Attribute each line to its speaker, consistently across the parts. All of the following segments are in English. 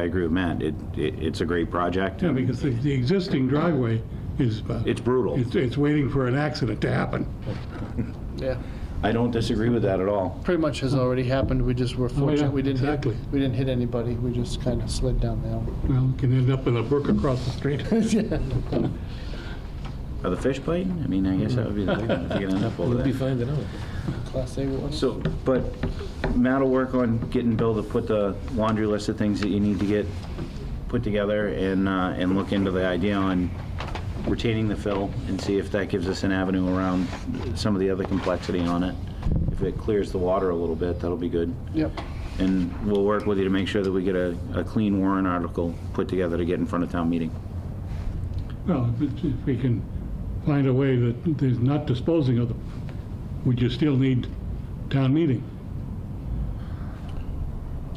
Speaker 1: I agree with Matt. It, it, it's a great project.
Speaker 2: Yeah, because the, the existing driveway is, uh,
Speaker 1: It's brutal.
Speaker 2: it's, it's waiting for an accident to happen.
Speaker 3: Yeah,
Speaker 1: I don't disagree with that at all.
Speaker 3: pretty much has already happened, we just were fortunate, we didn't hit,
Speaker 2: exactly.
Speaker 3: we didn't hit anybody, we just kind of slid down the
Speaker 2: Well, you can end up in a brook across the street.
Speaker 3: hill.
Speaker 1: Are the fish biting? I mean, I guess that would be the big one if you could end up over
Speaker 4: We'll be
Speaker 1: there.
Speaker 4: fine to know.
Speaker 3: Class A one.
Speaker 1: So, but Matt will work on getting Bill to put the laundry list of things that you need to get put together and, uh, and look into the idea on retaining the fill and see if that gives us an avenue around some of the other complexity on it. If it clears the water a little bit, that'll be good.
Speaker 3: Yep,
Speaker 1: And we'll work with you to make sure that we get a, a clean warrant article put together to get in front of town meeting.
Speaker 2: Well, if it- if we can find a way that there's not disposing of them, would you still need town meeting?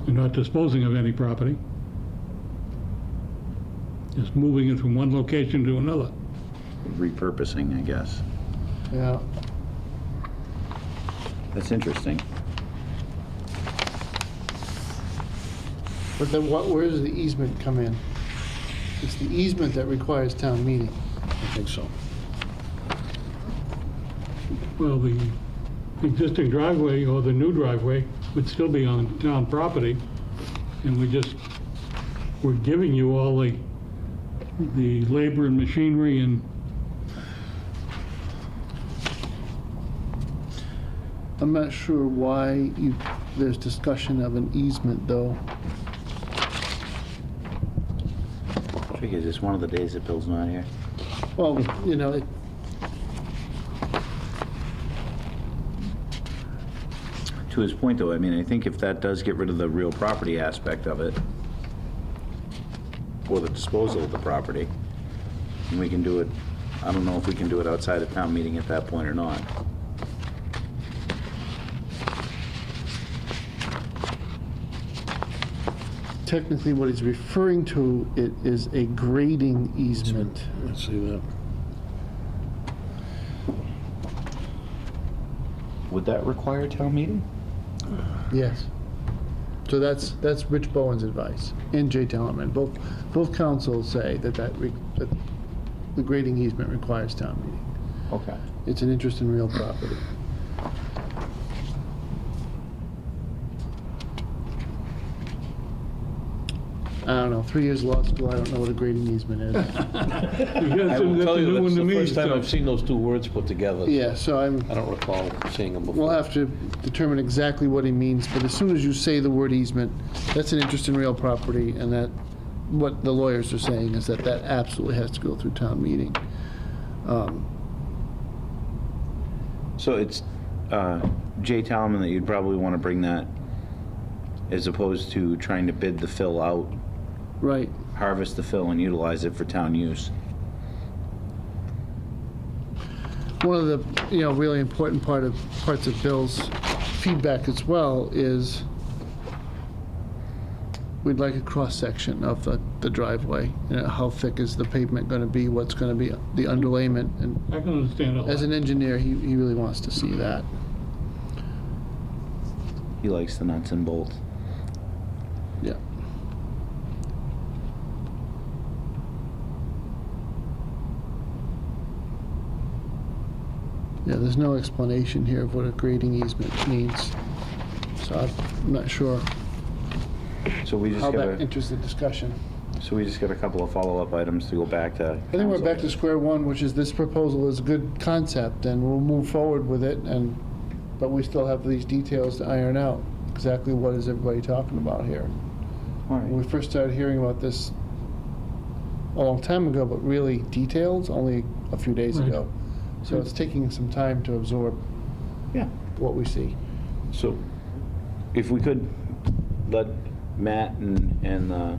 Speaker 2: You're not disposing of any property. Just moving it from one location to another.
Speaker 1: Repurposing, I guess.
Speaker 3: yeah,
Speaker 1: That's interesting.
Speaker 3: but then what, where does the easement come in? It's the easement that requires town meeting.
Speaker 4: I think so.
Speaker 2: Well, the existing driveway or the new driveway would still be on town property, and we just, we're giving you all the, the labor and machinery and,
Speaker 3: I'm not sure why you, there's discussion of an easement, though.
Speaker 1: Tricky, is this one of the days that Bill's not here?
Speaker 3: Well, you know, it,
Speaker 1: To his point, though, I mean, I think if that does get rid of the real property aspect of it, or the disposal of the property, and we can do it, I don't know if we can do it outside of town meeting at that point or not.
Speaker 3: technically what he's referring to, it is a grading easement.
Speaker 4: Let's see that.
Speaker 1: Would that require town meeting?
Speaker 3: Yes. So that's, that's Rich Bowen's advice, and Jay Tellerman. Both, both councils say that that, re- that the grading easement requires town meeting.
Speaker 1: Okay.
Speaker 3: It's an interest in real property. I don't know, three years law school, I don't know what a grading easement is.
Speaker 4: I will
Speaker 2: that's
Speaker 4: tell
Speaker 2: a
Speaker 4: you,
Speaker 2: new one
Speaker 4: that's
Speaker 2: to
Speaker 4: the
Speaker 2: me.
Speaker 4: first time
Speaker 2: so-
Speaker 4: I've seen those two words put together.
Speaker 3: Yeah, so I'm,
Speaker 4: I don't recall seeing them before.
Speaker 3: we'll have to determine exactly what he means, but as soon as you say the word easement, that's an interest in real property, and that, what the lawyers are saying is that that absolutely has to go through town meeting. Um,
Speaker 1: So it's uh, Jay Talman that you'd probably want to bring that, as opposed to trying to bid the fill out,
Speaker 3: Right,
Speaker 1: harvest the fill and utilize it for town use.
Speaker 3: one of the, you know, really important part of, parts of Bill's feedback as well is we'd like a cross-section of the, the driveway, you know, how thick is the pavement gonna be, what's gonna be the underlayment, and
Speaker 2: I can understand all
Speaker 3: as
Speaker 2: that.
Speaker 3: an engineer, he, he really wants to see that.
Speaker 1: He likes the nuts and bolts.
Speaker 3: Yeah. Yeah, there's no explanation here of what a grading easement means, so I'm not sure
Speaker 1: So we just
Speaker 3: how
Speaker 1: got
Speaker 3: that
Speaker 1: a,
Speaker 3: enters the discussion.
Speaker 1: so we just got a couple of follow-up items to go back to.
Speaker 3: I think we're back to square one, which is this proposal is a good concept, and we'll move forward with it, and, but we still have these details to iron out, exactly what is everybody talking about here.
Speaker 1: All right.
Speaker 3: When we first started hearing about this a long time ago, but really details only a few days
Speaker 2: Right.
Speaker 3: ago. So it's taking some time to absorb
Speaker 1: Yeah.
Speaker 3: what we see.
Speaker 1: So if we could let Matt and, and the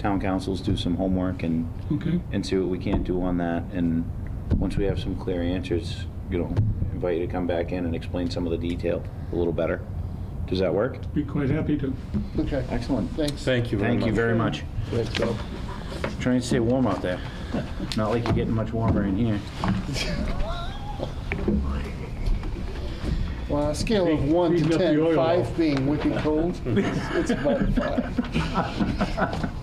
Speaker 1: town councils do some homework and,
Speaker 2: Okay,
Speaker 1: and see what we can do on that. And once we have some clear answers, you know, invite you to come back in and explain some of the detail a little better. Does that work?
Speaker 2: be quite happy to.
Speaker 3: Okay,
Speaker 1: Excellent.
Speaker 3: thanks.
Speaker 4: Thank you very much.
Speaker 1: Thank you very much.
Speaker 3: Thanks, Bill.
Speaker 1: Trying to stay warm out there. Not like you're getting much warmer in here.
Speaker 3: Well, on a scale of
Speaker 2: Hey,
Speaker 3: one to
Speaker 2: heating up the
Speaker 3: ten,
Speaker 2: oil.
Speaker 3: five being wicked cold, it's about a five.